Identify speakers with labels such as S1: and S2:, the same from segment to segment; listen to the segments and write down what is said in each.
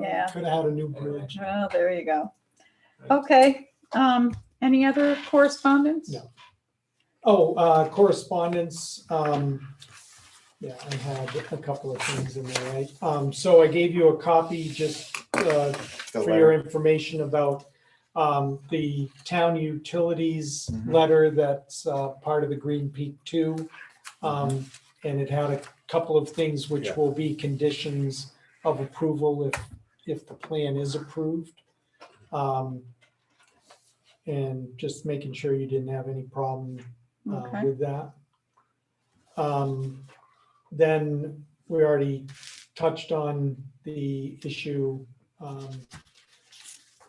S1: Yeah.
S2: Could have had a new bridge.
S1: Oh, there you go. Okay, um, any other correspondence?
S2: No. Oh, uh, correspondence, um, yeah, I had a couple of things in there, right? Um, so I gave you a copy just, uh,
S3: The
S2: for your
S3: letter.
S2: information about um, the town utilities
S3: Mhm.
S2: letter that's uh, part of the Green Peak Two. Um, And it had a couple of things which
S3: Yeah.
S2: will be conditions of approval if, if the plan is approved. Um, And just making sure you didn't have any problem uh,
S1: Okay,
S2: with that. Um, Then we already touched on the issue um,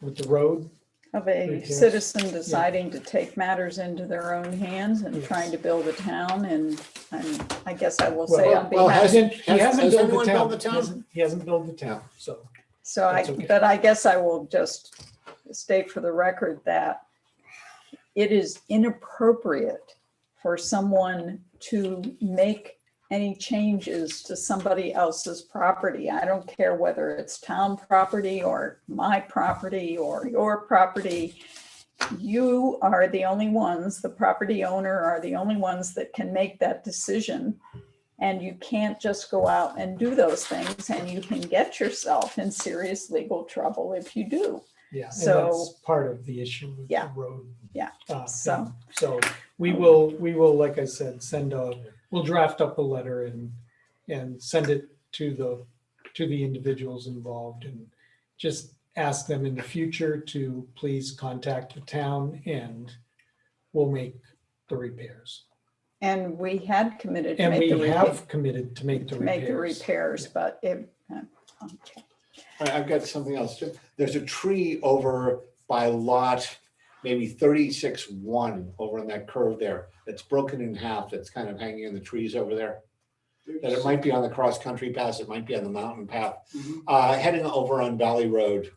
S2: with the road.
S1: of a
S2: yes.
S1: citizen deciding to take matters into their own hands and trying
S2: Yes.
S1: to build a town and, and I guess I
S2: Well,
S1: will say on
S4: well,
S1: behalf,
S4: has-
S2: Hasn't- He
S4: has-
S2: hasn't
S4: has
S2: built
S4: anyone
S2: the
S4: built the
S2: town.
S4: town?
S2: He hasn't- He hasn't built the town, so.
S1: so I,
S2: that's okay.
S1: but I guess I will just state for the record that it is inappropriate for someone to make any changes to somebody else's property. I don't care whether it's town property or my property or your property. You are the only ones, the property owner are the only ones that can make that decision. And you can't just go out and do those things and you can get yourself in serious legal trouble if you do.
S2: Yeah, and
S1: So-
S2: that's part of the issue with the
S1: Yeah.
S2: road.
S1: Yeah,
S2: uh,
S1: so-
S2: thing. So we will, we will, like I said, send a, we'll draft up a letter and, and send it to the, to the individuals involved and just ask them in the future to please contact the town and we'll make the repairs.
S1: And we had committed to
S2: And
S1: make
S2: we
S1: the repair,
S2: have committed to make the
S1: to make the
S2: repairs.
S1: repairs, but it, uh, okay.
S4: All right, I've got something else. There's a tree over by lot, maybe thirty-six one over on that curve there. That's broken in half. That's kind of hanging in the trees over there. That it might be on the cross-country pass. It might be on the mountain path,
S3: Mhm.
S4: uh, heading over on Valley Road.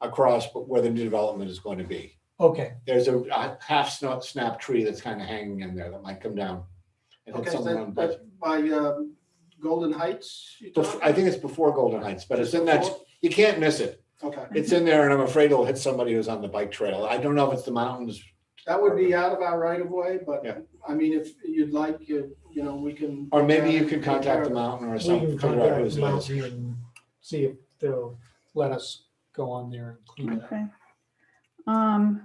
S4: Across where the new development is going to be.
S2: Okay,
S4: There's a, a half snap, snap tree that's kind of hanging in there that might come down. And hit
S3: Okay,
S4: something on
S3: that, that's
S4: both-
S3: by um, Golden Heights. you
S4: bef-
S3: talking?
S4: I think it's before Golden Heights, but it's in that, you can't miss it.
S3: Okay,
S4: It's in there and I'm afraid it'll hit somebody who's on the bike trail. I don't know if it's the mountains.
S3: that would be out of our right of way, but
S4: Yeah.
S3: I mean, if you'd like, you, you know, we can. uh,
S4: Or maybe you could contact the mountain or
S2: we can
S4: something, figure out
S2: contact
S4: who's it is.
S2: Mountain and see if they'll let us go on there and clean it up.
S1: Okay. Um,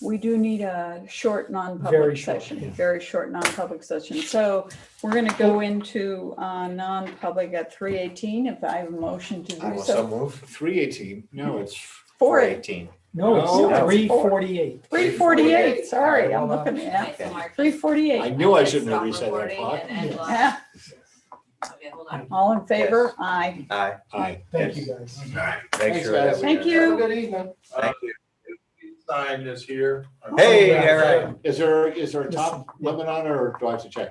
S1: we do need a short
S2: Very
S1: non-public
S2: short,
S1: session,
S2: yeah.
S1: very short non-public session. So we're gonna go into, uh, non-public at three eighteen, if I have a motion to do so.
S4: move. Three eighteen, no, it's
S1: Four,
S4: eighteen.
S2: No, it's
S1: No.
S2: three forty-eight.
S1: three forty-eight,
S4: 348.
S1: sorry, I'm
S2: Hold on.
S1: looking at,
S5: Okay.
S1: three
S4: I
S1: forty-eight.
S4: knew I shouldn't have
S5: Stop
S4: reset that
S5: recording
S4: clock.
S5: and end
S2: Yeah.
S5: live.
S1: Yeah,
S5: Okay, hold on.
S1: all in favor? Aye.
S6: Aye.
S4: Aye.
S2: Thank you, guys.
S6: Thanks
S4: Thanks, guys.
S6: for that.
S1: Thank
S3: Have a
S1: you.
S3: good evening.
S6: Thank
S7: you. Sign is here.
S6: Hey,
S2: Yeah.
S6: all right.
S4: Is there, is there a top limit on it or do I have to check?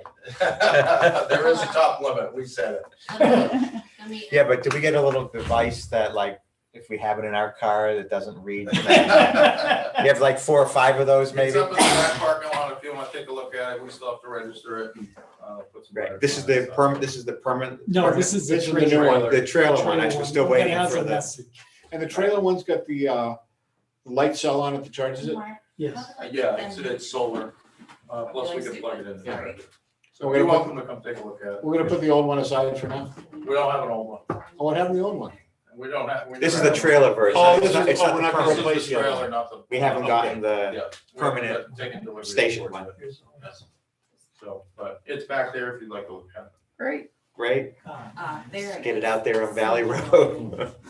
S7: There is a top limit, we said it.
S5: Okay, let me-
S6: Yeah, but did we get a little device that like, if we have it in our car that doesn't read? You
S7: It's
S6: have like four or five of those maybe?
S7: up in the back parking lot, if you want to take a look at it, we still have to register it and uh, put some.
S6: Right, this is the perm, this is the permanent.
S2: No, this is the
S4: This is the new
S2: trailer.
S4: one.
S6: The trailer one, I
S2: Trailer
S6: was still
S2: one.
S6: waiting
S2: It has
S6: for
S2: a
S6: this.
S2: message.
S4: And the trailer one's got the, uh, light cell on it that charges it.
S5: Mark,
S2: Yes.
S5: how do I
S7: Yeah,
S5: put
S7: it's,
S5: them-
S7: it's solar, uh, plus we can plug it in.
S5: Yeah.
S4: So we're
S7: You're
S4: gonna,
S7: welcome to come take a look at
S4: put-
S7: it.
S4: we're gonna put the old one aside for now.
S7: We don't have an old one.
S4: Oh, what happened to the old one?
S7: We don't have. we
S6: This is
S7: never
S6: the
S7: had
S6: trailer version.
S4: Oh,
S6: It's
S4: this
S6: not-
S4: is-
S6: it's
S4: oh,
S6: not
S4: we're
S6: the
S4: not
S7: one.
S4: gonna
S6: permanent.
S7: This is
S4: replace the other
S7: trailer,
S4: one.
S7: not the-
S6: We haven't gotten the,
S7: Yeah.
S6: permanent
S7: Taking delivery.
S6: station one.
S7: So, but it's back there if you'd like to look at it.
S1: Great.
S6: right?
S2: Ah,
S5: Ah, there it
S6: Get it
S5: is.
S6: out there on Valley Road.